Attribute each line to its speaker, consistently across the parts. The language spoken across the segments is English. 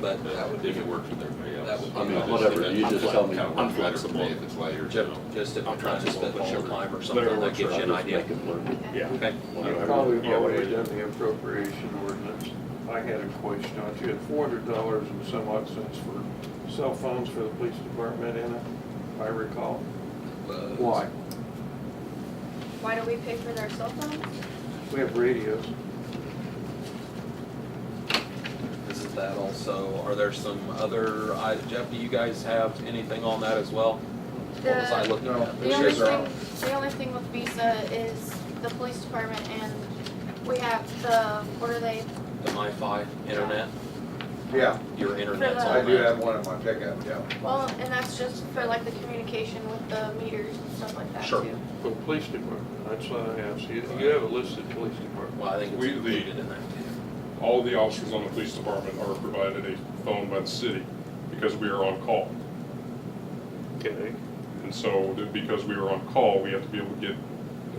Speaker 1: but that would
Speaker 2: But
Speaker 1: be.
Speaker 2: if it worked with everybody else.
Speaker 1: That would be
Speaker 2: I mean,
Speaker 1: my-
Speaker 2: it just
Speaker 3: Whatever,
Speaker 2: depends.
Speaker 3: you
Speaker 2: I'm
Speaker 3: just
Speaker 2: flex-
Speaker 3: tell me.
Speaker 2: Kind of works
Speaker 3: I'm
Speaker 2: better for me
Speaker 3: flexible.
Speaker 2: if it's later, you
Speaker 1: Just,
Speaker 2: know.
Speaker 1: just if
Speaker 2: I'm
Speaker 1: you're trying to
Speaker 2: flexible,
Speaker 1: spend
Speaker 2: but
Speaker 1: all
Speaker 2: sure.
Speaker 1: time or something,
Speaker 3: Whatever
Speaker 1: that
Speaker 3: works for
Speaker 1: gives you an
Speaker 3: others,
Speaker 1: idea.
Speaker 3: make it work.
Speaker 2: Yeah.
Speaker 1: Okay.
Speaker 4: You've
Speaker 3: Whatever.
Speaker 4: probably
Speaker 2: Yeah, we
Speaker 4: already
Speaker 2: did.
Speaker 4: done the appropriation ordinance. I had a question on it. You had four hundred dollars and some odd cents for cell phones for the police department in it, if I recall. Why?
Speaker 5: Why do we pay for their cell phones?
Speaker 4: We have radios.
Speaker 1: Isn't that also, are there some other, I- Jeff, do you guys have anything on that as well? What was I
Speaker 5: The-
Speaker 1: looking at?
Speaker 5: The only thing, the only thing with Visa is the police department and we have the, what are they,
Speaker 1: The MiFi internet,
Speaker 6: Yeah,
Speaker 1: your internet's
Speaker 5: the-
Speaker 6: I
Speaker 1: on
Speaker 6: do
Speaker 1: that.
Speaker 6: have one in my pickup, yeah.
Speaker 5: well, and that's just for like the communication with the meters and stuff like that
Speaker 1: Sure.
Speaker 5: too.
Speaker 4: For the police department, that's what I asked. You, you have a listed police department.
Speaker 1: Well, I think it's
Speaker 7: We- the-
Speaker 1: included in that too.
Speaker 7: All the officers on the police department are provided a phone by the city because we are on call.
Speaker 4: Okay.
Speaker 7: And so, th- because we are on call, we have to be able to get,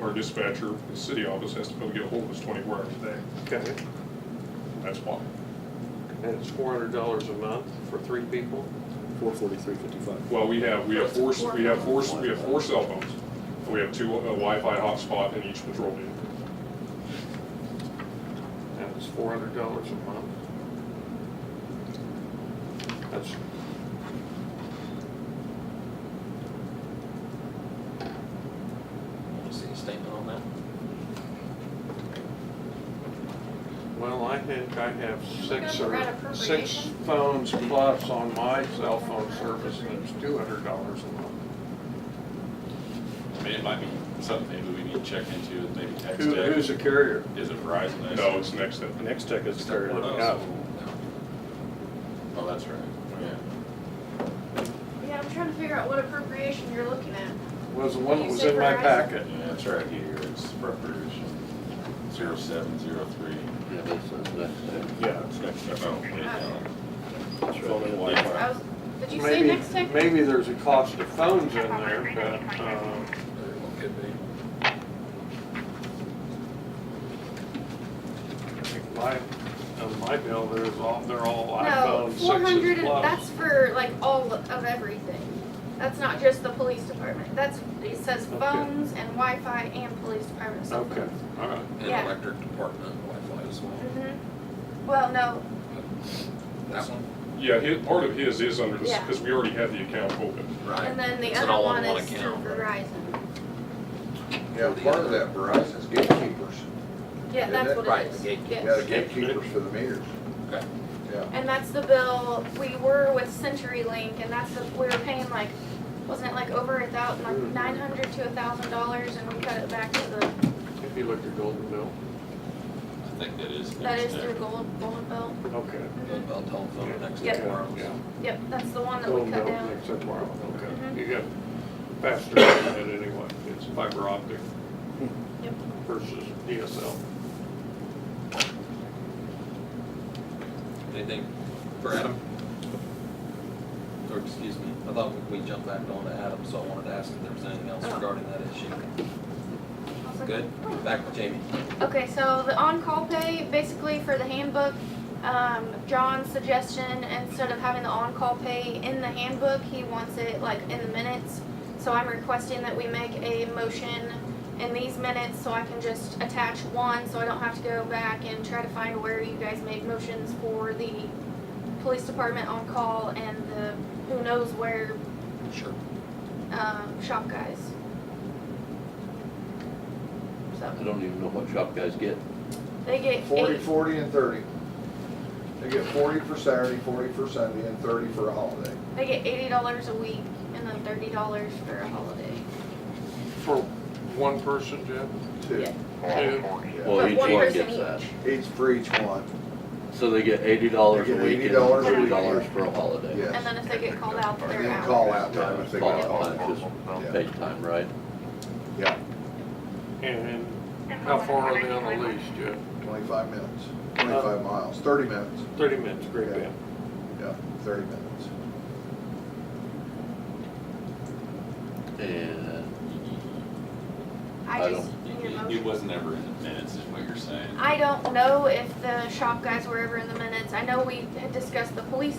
Speaker 7: our dispatcher, the city office has to be able to get hold of us twenty-four hours a day.
Speaker 4: Okay.
Speaker 7: That's why.
Speaker 4: And it's four hundred dollars a month for three people?
Speaker 3: Four forty-three fifty-five.
Speaker 7: Well, we have, we have four, we have four, we have four cell phones. And we have two, a Wi-Fi hotspot in each patrol vehicle.
Speaker 4: That was four hundred dollars a month. That's.
Speaker 1: Want to see a statement on that?
Speaker 4: Well, I think I have six
Speaker 5: Look at
Speaker 4: or,
Speaker 5: that
Speaker 4: six
Speaker 5: appropriation.
Speaker 4: phones plus on my cell phone service, and it's two hundred dollars a month.
Speaker 2: I mean, it might be something maybe we need to check into, maybe text
Speaker 4: Who,
Speaker 2: it.
Speaker 4: who's the carrier?
Speaker 2: Is it Verizon?
Speaker 7: No, it's next step.
Speaker 3: Next tech is
Speaker 2: Oh,
Speaker 3: carrier.
Speaker 2: so- Oh, that's right, yeah.
Speaker 5: Yeah, I'm trying to figure out what appropriation you're looking at.
Speaker 4: Was the one that
Speaker 5: You
Speaker 4: was
Speaker 5: said
Speaker 4: in my
Speaker 5: Verizon.
Speaker 4: packet.
Speaker 2: Yeah, it's right here, it's appropriation, zero seven, zero three.
Speaker 3: Yeah, that says next tech.
Speaker 7: Yeah, it's next step.
Speaker 2: Oh,
Speaker 3: Phone and
Speaker 5: I
Speaker 3: Wi-Fi.
Speaker 5: was, did you say
Speaker 4: Maybe,
Speaker 5: next tech?
Speaker 4: maybe there's a cost of phones in there, but, um,
Speaker 1: Very well could be.
Speaker 4: I think uh, my, on my bill, there's all, they're all
Speaker 5: No,
Speaker 4: iPhone
Speaker 5: four hundred,
Speaker 4: sixes plus.
Speaker 5: that's for like all of everything. That's not just the police department. That's, it says
Speaker 4: Okay.
Speaker 5: phones and Wi-Fi and police department cell
Speaker 4: Okay,
Speaker 5: phones.
Speaker 4: all
Speaker 7: Uh-huh.
Speaker 4: right.
Speaker 1: And
Speaker 5: Yeah.
Speaker 1: electric department Wi-Fi as well.
Speaker 5: Mhm. Well, no,
Speaker 1: That one?
Speaker 7: Yeah, his, part of his is under this,
Speaker 5: Yeah.
Speaker 7: because we already had the account open.
Speaker 5: and
Speaker 1: Right.
Speaker 5: then the
Speaker 1: It's an
Speaker 5: other one
Speaker 1: all-in-one
Speaker 5: is through
Speaker 1: account, right?
Speaker 5: Verizon.
Speaker 6: Yeah, part of that Verizon's gatekeepers.
Speaker 5: Yeah,
Speaker 6: Is
Speaker 5: that's
Speaker 6: it?
Speaker 5: what
Speaker 1: Right,
Speaker 5: it is.
Speaker 1: the gatekeeper.
Speaker 5: Yes.
Speaker 6: Yeah, the gatekeepers for the meters,
Speaker 1: Okay.
Speaker 6: yeah.
Speaker 5: And that's the bill, we were with CenturyLink, and that's the, we were paying like, wasn't it like over a thousand, like
Speaker 4: Mhm.
Speaker 5: nine hundred to a thousand dollars, and we cut it back to the,
Speaker 4: If you look at Golden Bill,
Speaker 2: I think that is.
Speaker 5: that
Speaker 2: next
Speaker 5: is
Speaker 2: step.
Speaker 5: through Gold, Golden Bill. Mm-hmm.
Speaker 4: okay.
Speaker 1: About telephone next to
Speaker 5: Yeah.
Speaker 1: tomorrow's.
Speaker 4: Yeah.
Speaker 5: Yep, that's the one that we
Speaker 4: Golden
Speaker 5: cut
Speaker 4: Bill
Speaker 5: down.
Speaker 4: makes up our own,
Speaker 5: Mhm.
Speaker 4: okay. You got faster than it anyway, it's fiber optic.
Speaker 5: Yep.
Speaker 4: Versus DSL.
Speaker 1: Anything for Adam? Or excuse me, I thought we jumped back on to Adam, so I wanted to ask if there was anything else
Speaker 5: Oh.
Speaker 1: regarding that issue.
Speaker 5: Awesome.
Speaker 1: Good, back to Jamie.
Speaker 5: Okay, so the on-call pay, basically for the handbook, um, John's suggestion, instead of having the on-call pay in the handbook, he wants it like in the minutes. So I'm requesting that we make a motion in these minutes so I can just attach one, so I don't have to go back and try to find where you guys made motions for the police department on-call and the who knows where,
Speaker 1: Sure.
Speaker 5: um, shop guys. So,
Speaker 3: I don't even know what shop guys get.
Speaker 5: they get eight.
Speaker 6: Forty, forty, and thirty. They get forty for Saturday, forty for Sunday, and thirty for a holiday.
Speaker 5: They get eighty dollars a week and then thirty dollars for a holiday.
Speaker 4: For one person, Jeff?
Speaker 6: Two,
Speaker 5: Yeah.
Speaker 4: Two.
Speaker 6: yeah.
Speaker 3: Well,
Speaker 5: But
Speaker 3: each
Speaker 5: one
Speaker 3: one
Speaker 5: person
Speaker 3: gets that.
Speaker 6: Each for each one,
Speaker 3: So they get eighty dollars a
Speaker 6: They get
Speaker 3: week and
Speaker 6: $80 a
Speaker 3: thirty
Speaker 6: week.
Speaker 3: dollars for a holiday.
Speaker 5: And
Speaker 6: yes.
Speaker 5: then if they get called out,
Speaker 6: And
Speaker 5: they're
Speaker 6: then
Speaker 5: out.
Speaker 6: call out time if they
Speaker 3: Call
Speaker 6: got
Speaker 3: out
Speaker 6: called.
Speaker 3: time,
Speaker 6: Yeah.
Speaker 3: just paid time, right?
Speaker 6: Yeah,
Speaker 4: And how far are they on the leash, Jeff?
Speaker 6: twenty-five minutes,
Speaker 5: Um,
Speaker 6: twenty-five miles, thirty minutes,
Speaker 4: Thirty minutes, great
Speaker 6: Yeah.
Speaker 4: band.
Speaker 6: yeah, thirty minutes.
Speaker 3: And
Speaker 5: I I
Speaker 3: I
Speaker 5: just
Speaker 3: don't-
Speaker 5: need a
Speaker 2: It- It
Speaker 5: motion.
Speaker 2: wasn't ever in the minutes, is what you're saying?
Speaker 5: I don't know if the shop guys were ever in the minutes. I know we had discussed the police